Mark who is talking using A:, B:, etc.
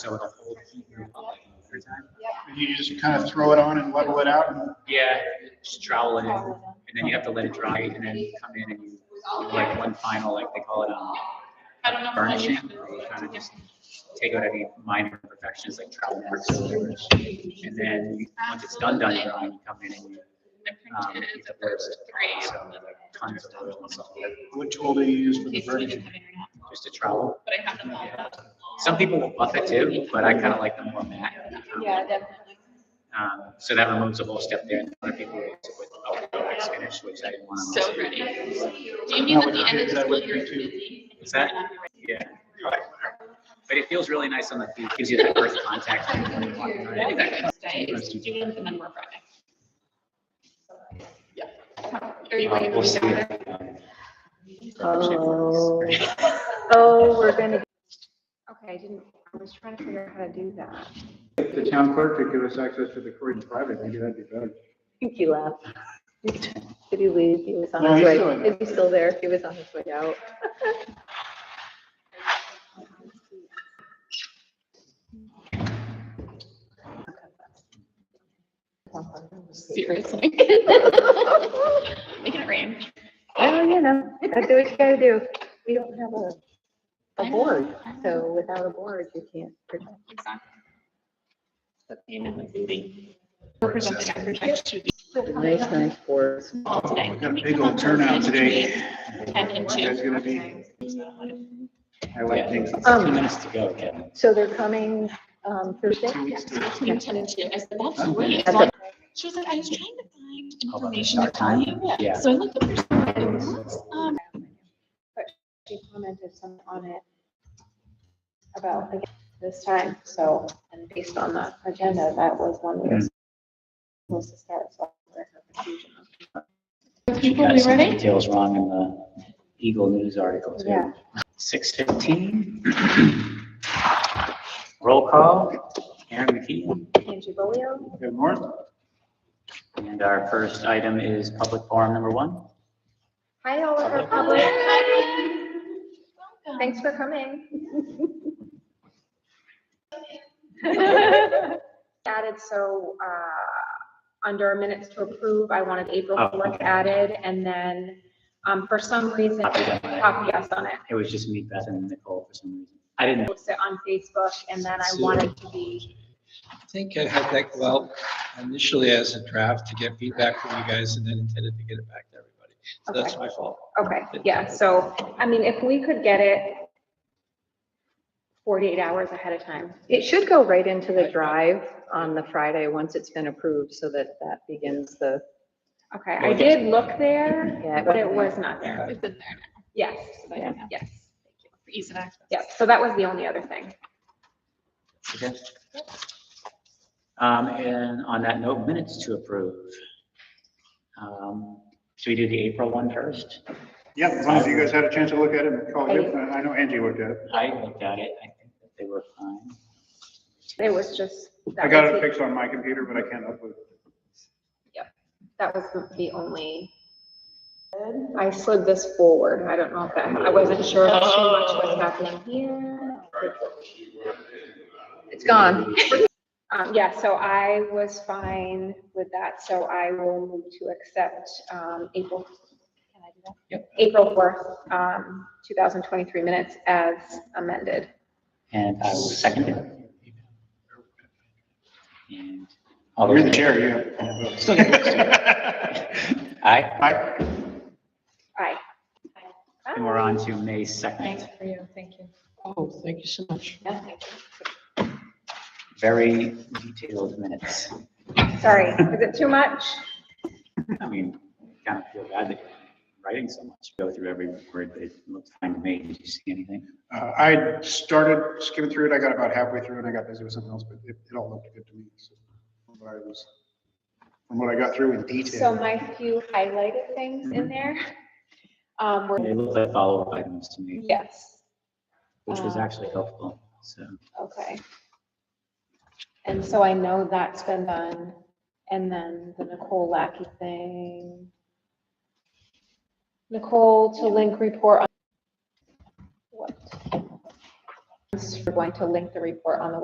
A: So it'll hold heat and pump it over time.
B: And you just kind of throw it on and level it out and
A: Yeah, just trowel it in, and then you have to let it dry, and then you come in and you do like one final, like they call it, um,
C: I don't know. if I
A: burnishing,
C: can-
A: where you kind of just take out any minor imperfections like trowel marks or whatever. And then, you- once it's done, done drying, you come in and you,
C: I
A: um,
C: printed
A: you
C: the
A: divorce it.
C: first three.
A: So like, tons of oil and stuff,
B: what tool do you use for
C: in
B: the
C: case we didn't
B: version?
C: have internet,
A: just a trowel.
C: But I have them all. up.
A: Some people will buff it too, but I kind of like the more matte. um,
D: Yeah, definitely.
A: Um, so that removes a whole step there and other people use it with a wax finish, which I didn't want to.
C: So pretty. Do you mean at
B: That
C: the
B: would
C: end
B: be-
C: of the
B: that
C: school
B: would be
C: year? it's
B: too.
C: busy?
A: Is that- Yeah. But it feels really nice on the feet, gives you that earth contact. when you're walking around. I think that-
C: Wednesday is June and then we're Friday. Yeah. Are you
A: Uh,
C: ready to go
A: we'll see.
C: down?
D: Oh. Oh, we're gonna. Okay, I didn't, I was trying to figure out how to do that.
E: If the town clerk could give us access to the court in private, maybe that'd be better.
F: think he left. Did he leave? He was on
B: No,
F: his
B: he's
F: way.
B: doing
F: Is he still there? He was on his way out.
C: Seriously. Making it rain.
F: Well, Oh, you know, that's what you gotta do. We don't have a,
C: I know,
F: a board,
C: I know.
F: so without a board, you can't. protect.
C: Exactly. But, you know, it's easy. We're presenting after next Tuesday,
F: Nice, nice board.
C: all today.
B: Oh, We got a big old turnout today.
C: Ten and two.
B: That's gonna be,
E: I like things.
A: Two minutes to go, Kevin.
F: Um, So they're coming, um, Thursday?
B: two weeks to
C: Between ten and two. I said, that's
E: Okay.
C: great.
F: That's it.
C: She was like, I was trying to find
A: How about
C: information to
A: start
C: tell
A: time?
C: you.
A: Yeah.
C: So I looked at her, and what's, um,
D: But she commented some on it about again this time, so, and based on the agenda, that was one we were supposed to start, so. there's no confusion.
C: people, we ready?
A: Details wrong in the Eagle News article
D: Yeah.
A: too. Six fifteen. Roll call, Aaron McKeon.
D: Angie Bolio,
B: yeah, North?
A: And our first item is public forum number one.
D: hi, all of our public, thanks for coming. Added, so, uh, under minutes to approve, I wanted April
A: Oh,
D: fourth
A: okay.
D: added, and then, um, for some reason,
A: Copy that.
D: copy us on it.
A: It was just me, Beth and Nicole for some reason. I didn't.
D: post it on Facebook and then I wanted to be,
G: I think I had that, well, initially as a draft to get feedback from you guys and then intended to get it back to everybody. So that's my fault.
D: okay, yeah, so, I mean, if we could get it forty-eight hours ahead of time.
F: It should go right into the drive on the Friday, once it's been approved, so that that begins the,
D: Okay, I did look there,
F: yeah.
D: but it was not there.
C: It's in there.
D: Yes,
C: so I don't know.
D: yes,
C: For Ease of access.
D: yes. So that was the only other thing.
A: Okay. Um, and on that note, minutes to approve. Um, should we do the April one first?
B: Yeah, as long as you guys had a chance to look at it and call it, good. I know Angie looked at it.
A: I looked at it, I think that they were fine.
D: It was just. that
B: I got
D: was
B: it
D: the-
B: fixed on my computer, but I can't upload.
D: That was the- the only. I slid this forward. I don't know if that, I wasn't sure if too much
C: Oh.
D: was happening here.
F: It's gone.
D: Um, yeah, so I was fine with that, so I will move to accept, um, April. can I do that? April fourth, um, two thousand twenty-three minutes as amended.
A: And I will second it. And. all
B: You're
A: those
B: the
A: in
B: chair,
A: favor?
B: yeah.
A: Still got Aye,
B: Hi,
D: Aye.
A: and we're on to May second.
C: Thanks for you. Thank you.
G: Oh, thank you so much.
A: Very detailed minutes.
D: Sorry, is it too much?
A: I mean, kind of feel bad that you're writing so much, go through every word, but it looked fine to me. Did you see anything?
B: Uh, I started skimming through it. I got about halfway through and I got busy with something else, but it, it all looked good to me. so. But I was- From what I got through in
D: So
B: detail.
D: my few highlighted things in there. Um,
A: They
D: were,
A: looked like follow-up items to me,
D: yes.
A: which was
D: Um,
A: actually helpful, so.
D: Okay. And so I know that's been done, and then the Nicole Lackey thing. Nicole to link report on. What? We're going to link the report on the